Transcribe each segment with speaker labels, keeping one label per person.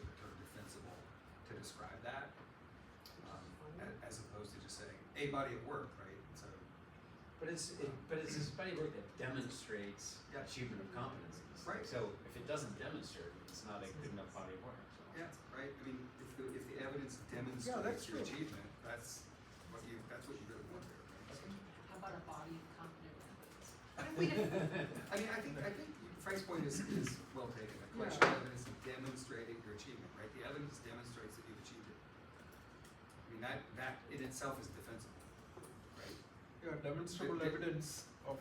Speaker 1: um, a body of work, right? So
Speaker 2: But it's, it, but it's this body of work that demonstrates
Speaker 1: Yeah.
Speaker 2: achievement of competencies.
Speaker 1: Right.
Speaker 2: So if it doesn't demonstrate, it, it's not a good enough body of work, so.
Speaker 1: yeah, right. I mean, if the if the evidence demonstrates
Speaker 3: that's
Speaker 1: your
Speaker 3: true.
Speaker 1: achievement, that's what you that's what you really want there. Right?
Speaker 4: How about a body of competent records?
Speaker 1: I mean, I think I think Frank's point is, is well taken. The collection of evidence demonstrating your achievement, right? The evidence demonstrates that you've achieved it. I mean, that that in itself is defensible, right?
Speaker 3: Yeah, demonstrable
Speaker 1: It- it-
Speaker 3: evidence of.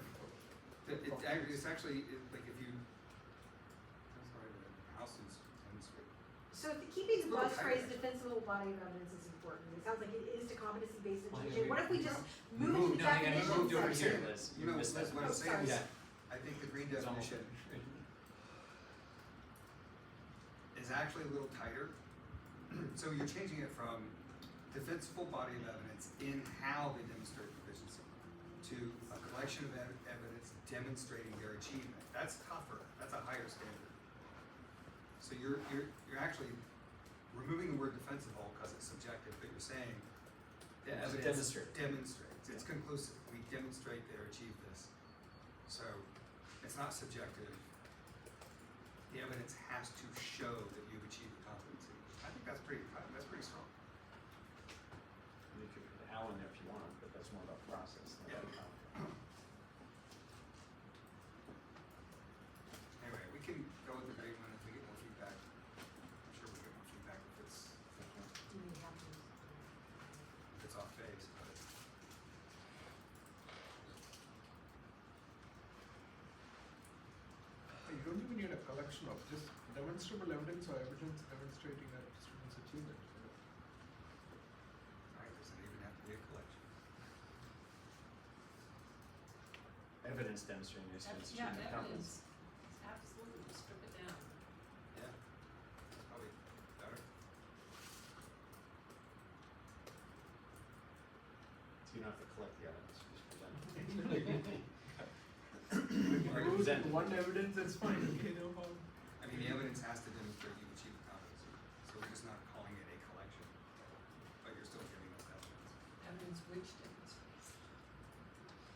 Speaker 1: It, it, ac- it's actually it, like if you. I'm sorry, but Houston's demonstrate.
Speaker 5: So if- keeping the
Speaker 1: Well,
Speaker 5: buzz
Speaker 1: I-
Speaker 5: phrase defensible body of evidence is important. It sounds like it is to competency-based
Speaker 2: Well,
Speaker 5: education. What if we just move
Speaker 2: Move,
Speaker 5: the
Speaker 2: no, hang on,
Speaker 5: definition
Speaker 2: moved over
Speaker 5: section?
Speaker 2: here, Liz,
Speaker 1: You
Speaker 2: you
Speaker 1: know,
Speaker 2: missed that.
Speaker 1: Liz, what I'm
Speaker 5: Oh,
Speaker 1: saying is,
Speaker 2: sorry.
Speaker 1: I think the green
Speaker 2: It's almost-
Speaker 1: definition is actually a little tighter. so you're changing it from defensible body of evidence in how they demonstrate proficiency to a collection of ev- evidence demonstrating their achievement. That's tougher. That's a higher standard. So you're you're you're actually removing the word defensible because it's subjective, but you're saying the
Speaker 2: Yeah, it's
Speaker 1: evidence
Speaker 2: demonstrate.
Speaker 1: demonstrates. It's conclusive. We demonstrate they achieved this. So it's not subjective. The evidence has to show that you've achieved the competency. I think that's pretty that's pretty strong.
Speaker 2: You could put Al in there if you want, but that's more about process than
Speaker 1: Yeah.
Speaker 2: about content.
Speaker 1: Anyway, we can go with the green one if we get more feedback. I'm sure we'll get more feedback if it's
Speaker 5: Do we have to-
Speaker 1: if it's off base, but
Speaker 3: You don't even need a collection of just demonstrable evidence or evidence demonstrating a student's achievement.
Speaker 1: alright, doesn't even have to be a collection.
Speaker 2: Evidence demonstrating your students'
Speaker 4: Yeah,
Speaker 2: achievement of
Speaker 4: evidence,
Speaker 2: competence.
Speaker 4: absolutely, strip it down.
Speaker 1: Yeah. That's probably better.
Speaker 2: So you don't have to collect the evidence, you just present it.
Speaker 3: If
Speaker 1: Or
Speaker 3: you go
Speaker 2: present.
Speaker 3: with one evidence, that's fine, you know um, how.
Speaker 1: I mean, the evidence has to demonstrate you've achieved the competency, so we're just not calling it a collection, but you're still giving us evidence.
Speaker 4: Evidence which demonstrates.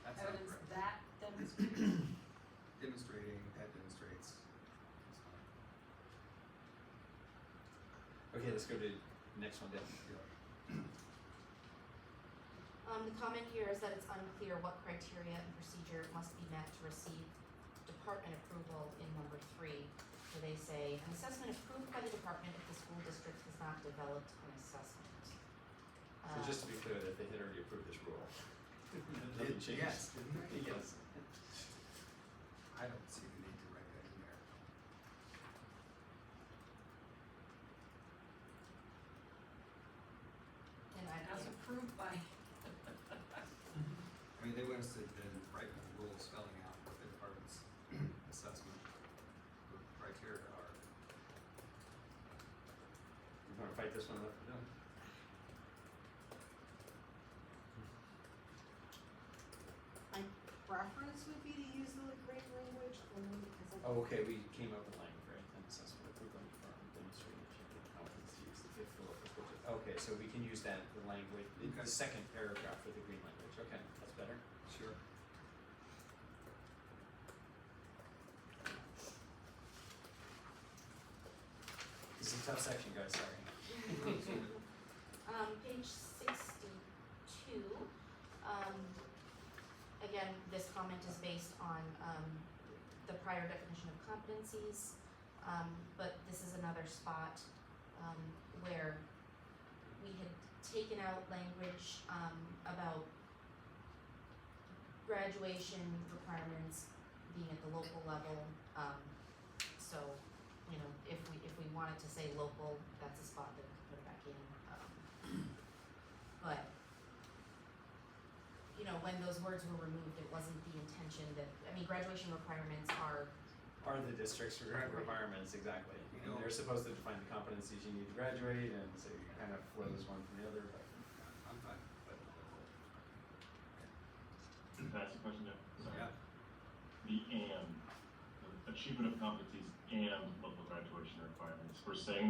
Speaker 1: That's not
Speaker 4: Evidence
Speaker 1: correct.
Speaker 4: that demonstrates.
Speaker 1: Demonstrating, that demonstrates. It's fine.
Speaker 2: Okay, let's go to next one down.
Speaker 1: Yeah.
Speaker 6: Um, the comment here is that it's unclear what criteria and procedure must be met to receive department approval in number three, where they say, an assessment approved by the department if the school district has not developed an assessment.
Speaker 2: So
Speaker 6: Uh,
Speaker 2: just to be clear, that they had already approved this rule. Nothing
Speaker 1: Did-
Speaker 2: changed.
Speaker 1: Yes, didn't I?
Speaker 2: Yes.
Speaker 1: I don't see the need to write that in there.
Speaker 6: Um, And I,
Speaker 4: As approved by,
Speaker 1: I mean, they want us to then write the rule spelling out what the department's assessment criteria are.
Speaker 2: You wanna fight this one up? No.
Speaker 5: My preference would be to use the great language only because I.
Speaker 2: Oh, okay, we came up with language, right, and assessment approved on the firm, demonstrating achievement of competencies, the fifth rule of the course. Okay, so we can use that, the language, the-
Speaker 1: Okay.
Speaker 2: the second paragraph for the green language, okay, that's better.
Speaker 1: Sure.
Speaker 2: This is a tough section, guys, sorry.
Speaker 6: Um, page sixty-two, um, again, this comment is based on, um, the prior definition of competencies. Um, but this is another spot, um, where we had taken out language, um, about graduation requirements being at the local level, um, so, you know, if we, if we wanted to say local, that's a spot that we could put back in, um. But, you know, when those words were removed, it wasn't the intention that, I mean, graduation requirements are,
Speaker 2: Are the district's re-
Speaker 6: Right.
Speaker 2: requirements, exactly,
Speaker 1: You
Speaker 2: and
Speaker 1: know-
Speaker 2: they're supposed to define the competencies you need to graduate, and so you kind of flows one from the other, but.
Speaker 1: I'm fine.
Speaker 7: Can I ask a question, Jeff? Sorry.
Speaker 1: Yeah,
Speaker 7: The and, the achievement of competencies and local graduation requirements, we're saying